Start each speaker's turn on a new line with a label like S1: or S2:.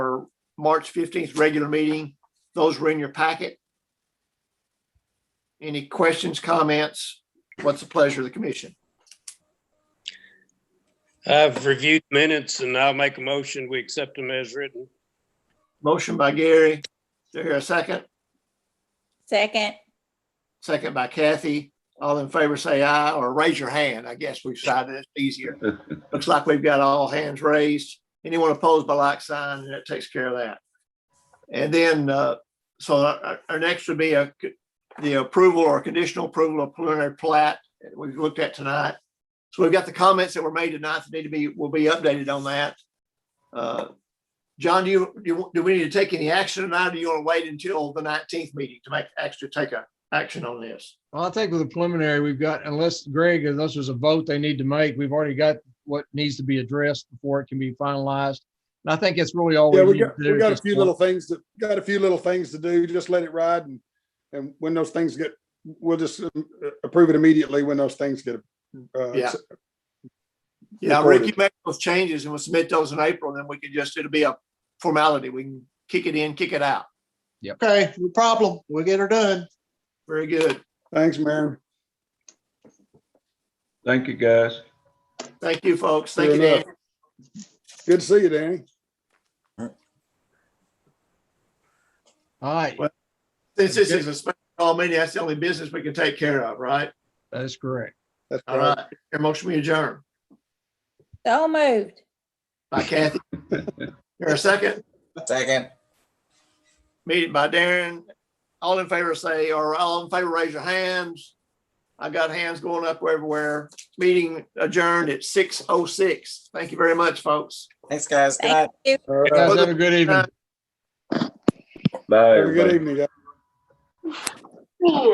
S1: March fifteenth, regular meeting. Those were in your packet. Any questions, comments? What's the pleasure of the commission?
S2: I've reviewed minutes and I'll make a motion. We accept them as written.
S1: Motion by Gary. Is there a second?
S3: Second,
S1: Second by Kathy. All in favor, say aye, or raise your hand. I guess we've decided it's easier. Looks like we've got all hands raised. Anyone opposed by like sign, and that takes care of that. And then, uh, so our, our- our next would be a, c- the approval or conditional approval of preliminary plat that we've looked at tonight. So we've got the comments that were made tonight that need to be, will be updated on that. Uh, John, do you, do you- do we need to take any action tonight? or Do you want to wait until the nineteenth meeting to make, actually take a action on this?
S4: Well, I think with the preliminary, we've got, unless Greg, unless there's a vote they need to make, we've already got what needs to be addressed before it can be finalized. And I think it's really all.
S5: Yeah, we
S4: need to
S5: got,
S4: do
S5: we
S4: at
S5: got a
S4: this
S5: few
S4: point.
S5: little things that, got a few little things to do, just let it ride and, and when those things get, we'll just um, approve it immediately when those things get. uh,
S1: Yeah.
S5: s-
S1: Yeah,
S5: Recorded.
S1: Ricky make those changes and we'll submit those in April, and then we can just, it'll be a formality. We can kick it in, kick it out.
S6: Okay, no problem. We'll get her done.
S1: Very good.
S5: Thanks, Mayor.
S7: Thank you, guys.
S1: Thank you, folks. Thank you,
S5: Fair
S1: Dan.
S5: enough. Good to see you, Danny.
S4: All right,
S1: Well- Since this is a special call meeting, that's the only business we can take care of, right?
S4: that is correct.
S5: That's
S1: All
S5: right.
S1: right. Your motion we adjourn
S3: so moved.
S1: by Kathy. Here a second,
S8: Second.
S1: meeting by Darren. All in favor say, or all in favor, raise your hands. I got hands going up everywhere. Meeting adjourned at six oh six. Thank you very much, folks.
S8: Thanks, guys. Good night.
S3: Thank you.
S5: All right.
S4: Guys, have a good evening.
S7: Bye,
S5: Have a
S7: everybody.
S5: good evening, guys.